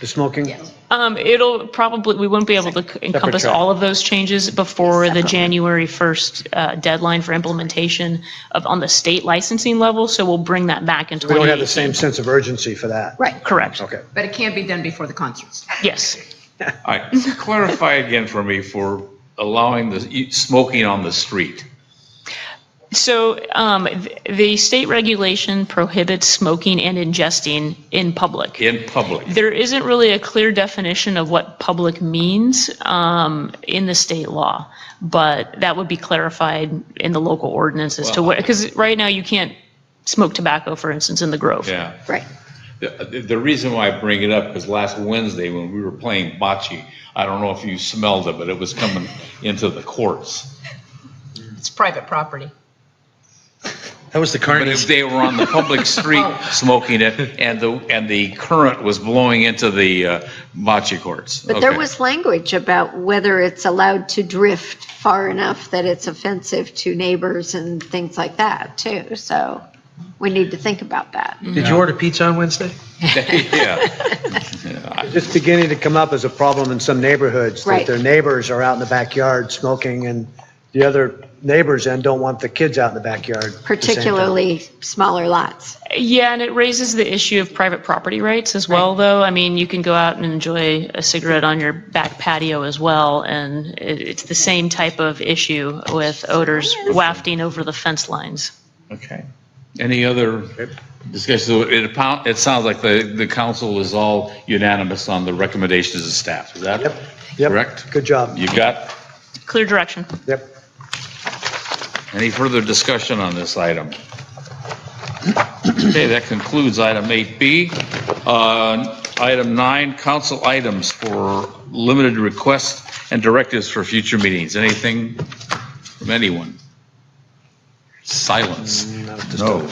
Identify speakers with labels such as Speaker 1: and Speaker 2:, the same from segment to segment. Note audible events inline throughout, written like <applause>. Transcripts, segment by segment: Speaker 1: the smoking?
Speaker 2: Yes.
Speaker 3: Um, it'll probably, we won't be able to encompass
Speaker 1: track.
Speaker 3: all of those changes before the
Speaker 2: Separate.
Speaker 3: January 1st uh, deadline for implementation of, on the state licensing level, so we'll bring that back in
Speaker 1: We don't have the same
Speaker 3: 2018.
Speaker 1: sense of urgency for that.
Speaker 2: Right,
Speaker 3: Correct,
Speaker 1: Okay.
Speaker 2: but it can't be done before the concerts.
Speaker 3: yes.
Speaker 4: I, clarify again for me for allowing the e- smoking on the street.
Speaker 3: So um, th- the state regulation prohibits smoking and ingesting in public.
Speaker 4: in public.
Speaker 3: There isn't really a clear definition of what public means um, in the state law, but that would be clarified in the local ordinance as to what, because right now you can't smoke tobacco, for instance, in the Grove.
Speaker 4: Yeah.
Speaker 2: Right.
Speaker 4: The, the- the reason why I bring it up is last Wednesday when we were playing bocce, I don't know if you smelled it, but it was coming into the courts.
Speaker 2: It's private property.
Speaker 1: That was the
Speaker 4: But if they were on the public
Speaker 5: <laughs>
Speaker 4: street
Speaker 5: Oh.
Speaker 4: smoking it and the, and the current was blowing into the uh, bocce courts.
Speaker 5: But there
Speaker 4: Okay.
Speaker 5: was language about whether it's allowed to drift far enough that it's offensive to neighbors and things like that, too. So we need to think about that.
Speaker 6: Did you order pizza on Wednesday?
Speaker 4: <laughs> Yeah.
Speaker 1: It's beginning to come up as a problem in some neighborhoods, that
Speaker 5: Right.
Speaker 1: their neighbors are out in the backyard smoking, and the other neighbors and don't want the kids out in the backyard. at the same time.
Speaker 5: Particularly smaller lots.
Speaker 3: Yeah, and it raises the issue of private property rights as well, though. I mean, you can go out and enjoy a cigarette on your back patio as well, and it, it's the same type of issue with odors wafting over the fence lines.
Speaker 4: Okay. Any other discussion? So It, appo- it sounds like the, the council is all unanimous on the recommendations of staff. Is that
Speaker 1: Yep.
Speaker 4: correct?
Speaker 1: Good job.
Speaker 4: You got
Speaker 3: Clear direction.
Speaker 1: Yep.
Speaker 4: Any further discussion on this item? Okay, that concludes item 8B. Uh, Item 9, council items for limited requests and directives for future meetings. Anything from anyone? Silence. No.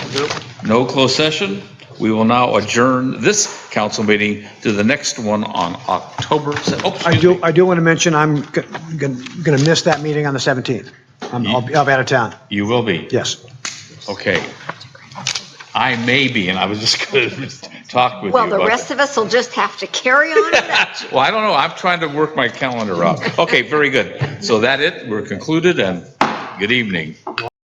Speaker 4: No closed session. We will now adjourn this council meeting to the next one on October, se- oh,
Speaker 1: I
Speaker 4: excuse me.
Speaker 1: do, I do want to mention, I'm going to miss that meeting on the 17th. I'm, I'll be I'll be out of town,
Speaker 4: You will be.
Speaker 1: yes.
Speaker 4: Okay. I may be, and I was just going to <laughs> talk with you
Speaker 5: Well, the
Speaker 4: about
Speaker 5: rest of us will just have to carry on with that.
Speaker 4: that. <laughs> Well, I don't know. I'm trying to work my calendar up. Okay, very good. So that it, we're concluded, and good evening.